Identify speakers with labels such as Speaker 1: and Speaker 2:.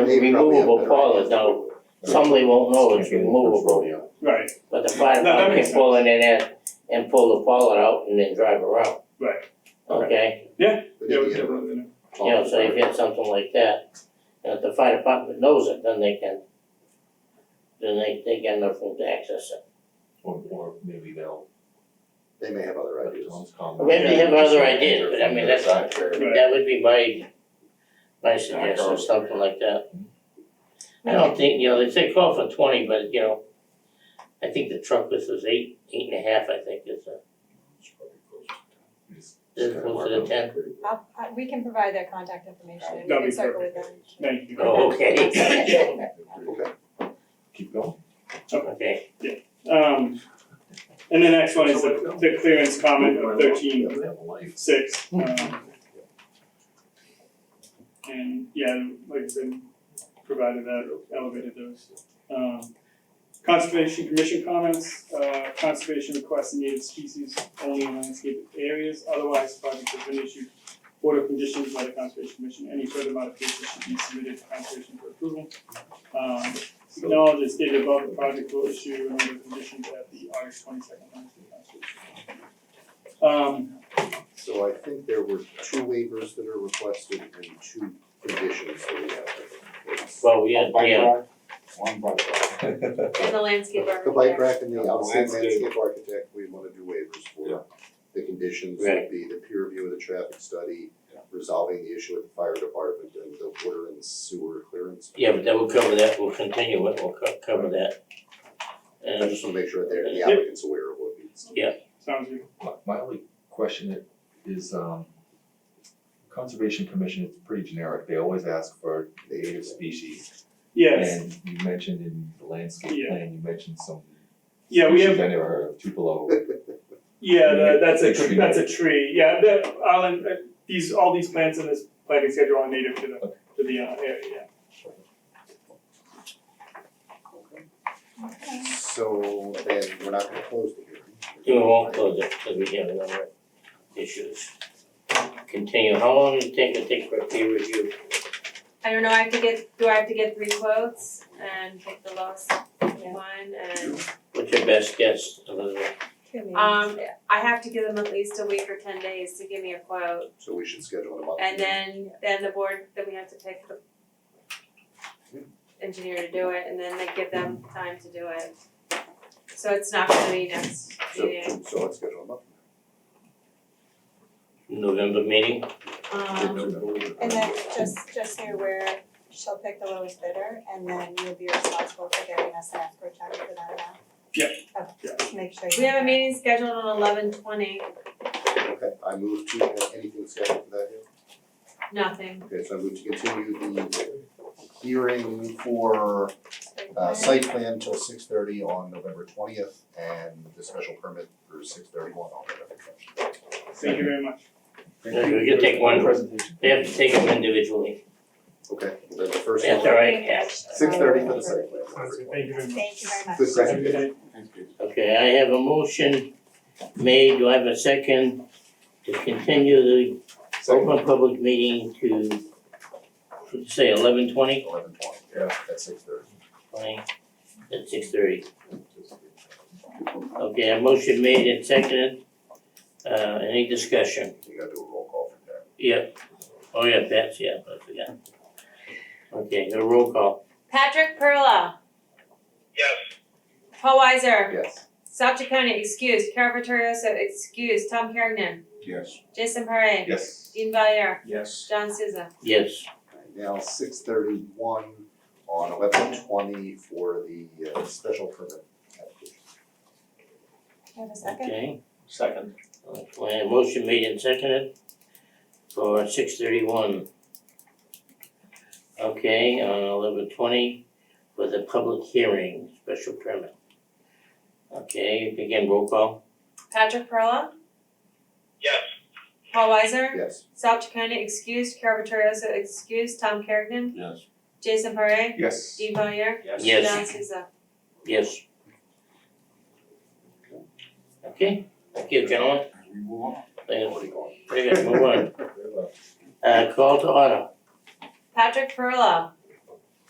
Speaker 1: it's
Speaker 2: They've probably
Speaker 1: removable
Speaker 2: have better
Speaker 1: toilet,
Speaker 2: ideas.
Speaker 1: now, somebody won't know it's removable,
Speaker 3: Right,
Speaker 1: but the fire
Speaker 3: No, that
Speaker 1: department
Speaker 3: makes
Speaker 1: can pull it in there and pull the toilet out and then drive around.
Speaker 3: Right.
Speaker 1: Okay,
Speaker 2: But
Speaker 3: yeah,
Speaker 2: if
Speaker 3: we
Speaker 2: you
Speaker 3: can
Speaker 2: have a
Speaker 3: put it in
Speaker 1: you know, so if you have something like that, and if the fire department knows it, then they can, then they, they got nothing to access it.
Speaker 4: Or, or maybe they'll,
Speaker 2: They may have other ideas.
Speaker 4: Tom's comment.
Speaker 1: Maybe they have other ideas, but I mean, that's,
Speaker 3: there. Right.
Speaker 1: that would be my, my suggestion, something like that. I don't think, you know, they say call for twenty, but you know, I think the truck list was eight, eight and a half, I think, is uh, a, is it close to the ten?
Speaker 5: I'll, I, we can provide their contact information and we
Speaker 3: That'd be
Speaker 5: can circle with them.
Speaker 3: Thank you.
Speaker 1: Oh, okay.
Speaker 4: Keep going.
Speaker 1: Okay,
Speaker 3: Um, and the next one is the, the clearance comment of thirteen
Speaker 4: Doesn't have a life.
Speaker 3: six, um. And yeah, like I said, provided that elevated those, um. Conservation Commission comments, uh, conservation requests native species only in landscape areas, otherwise projects have been issued. Order conditions by the Conservation Commission, any further modifications should be submitted to conservation for approval. Um, acknowledge as stated above, the project will issue an order of conditions at the August twenty second Landscape Conservation. Um,
Speaker 2: So I think there were two waivers that are requested and two conditions that we have.
Speaker 1: well, we had,
Speaker 6: Bike
Speaker 1: yeah,
Speaker 6: rack, one bike rack.
Speaker 5: And the landscape
Speaker 2: The bike rack and the outside
Speaker 6: Landscape.
Speaker 2: landscape architect, we wanna do waivers
Speaker 6: Yeah.
Speaker 2: for. The conditions
Speaker 1: Right.
Speaker 2: would be the peer review of the traffic study,
Speaker 6: Yeah.
Speaker 2: resolving the issue with the fire department and the water and sewer clearance.
Speaker 1: yeah, but that will cover that, we'll continue it, we'll co- cover that.
Speaker 2: I
Speaker 1: And,
Speaker 2: just wanna make sure that they're- the
Speaker 3: Yeah.
Speaker 2: applicant's aware of what needs.
Speaker 3: Sounds good.
Speaker 4: My, my only question is, um, Conservation Commission is pretty generic, they always ask for native species.
Speaker 3: Yes,
Speaker 4: And you mentioned in the landscape
Speaker 3: Yeah.
Speaker 4: plan, you mentioned some
Speaker 3: yeah, we
Speaker 4: species
Speaker 3: have,
Speaker 4: I never heard of, Tupelo.
Speaker 3: yeah, the- that's a,
Speaker 4: It could
Speaker 3: tr-
Speaker 4: be
Speaker 3: that's a tree, yeah, the, island, uh, these, all these plants in this planting schedule are native to the, to the uh, area, yeah.
Speaker 2: So then we're not gonna close the hearing.
Speaker 1: we won't close it, cause we have another issues. Continue, how long does it take to take for a peer review?
Speaker 5: I don't know, I have to get, do I have to get three quotes and pick the lowest one and,
Speaker 1: What's your best guess, Elizabeth?
Speaker 5: um, I have to give them at least a week or ten days to give me a quote.
Speaker 2: So we should schedule it a month.
Speaker 5: And then, then the board, then we have to pick the engineer to do it and then they give them time to do it. So it's not gonna be next
Speaker 2: So
Speaker 5: meeting,
Speaker 2: so let's schedule a month.
Speaker 1: November meeting?
Speaker 7: Um, and then just, just so you're aware, she'll pick the lowest bidder and then you'll be responsible for getting us an escrow check for that amount.
Speaker 3: Yeah.
Speaker 7: Okay, just make sure you.
Speaker 5: we have a meeting scheduled on eleven twenty,
Speaker 2: Okay, I move to, uh, anything scheduled for that here?
Speaker 5: nothing.
Speaker 2: Okay, so I move to continue the hearing for uh site plan till six thirty on November twentieth and the special permit for six thirty one on November twentieth.
Speaker 3: Thank you very much.
Speaker 1: Yeah, you can take one.
Speaker 4: presentation.
Speaker 1: They have to take them individually.
Speaker 2: Okay, then the first
Speaker 1: That's
Speaker 2: one,
Speaker 1: all right, yeah.
Speaker 2: six thirty for the site plan.
Speaker 3: Thank you very much.
Speaker 7: Thank you very much.
Speaker 2: The
Speaker 3: Have a
Speaker 2: second
Speaker 3: good
Speaker 2: day.
Speaker 3: day.
Speaker 1: Okay, I have a motion made, do I have a second to continue the
Speaker 3: Oh,
Speaker 1: open public meeting to, say eleven twenty?
Speaker 2: eleven twenty, at six thirty.
Speaker 1: Twenty, at six thirty. Okay, a motion made and seconded. Uh, any discussion?
Speaker 2: You gotta do a roll call for that.
Speaker 1: Yep. Oh, yeah, Pat's, yeah, I forgot. Okay, the roll call.
Speaker 5: Patrick Perla. Yes. Paul Weiser.
Speaker 2: Yes.
Speaker 5: South County excused. Carol Vittorioso excused. Tom Kergnen.
Speaker 6: Yes.
Speaker 5: Jason Parra.
Speaker 4: Yes.
Speaker 5: Dean Valier.
Speaker 6: Yes.
Speaker 5: John Souza.
Speaker 1: Yes,
Speaker 2: Now, six thirty one on eleven twenty for the uh special permit application.
Speaker 7: You have a second?
Speaker 1: okay.
Speaker 6: Second.
Speaker 1: Okay, motion made and seconded for six thirty-one. Okay, on eleven twenty for the public hearing, special permit. Okay, again, roll call.
Speaker 5: Patrick Perla. Yes. Paul Weiser.
Speaker 2: Yes.
Speaker 5: South County excused. Carol Vittorioso excused. Tom Kergnen.
Speaker 6: Yes.
Speaker 5: Jason Parra.
Speaker 4: Yes.
Speaker 5: Dean Valier.
Speaker 1: Yes.
Speaker 5: John Souza.
Speaker 1: Yes. Okay, thank you, gentlemen.
Speaker 6: We move on.
Speaker 1: Thank you. Very good, move on. Uh, call to order.
Speaker 5: Patrick Perla.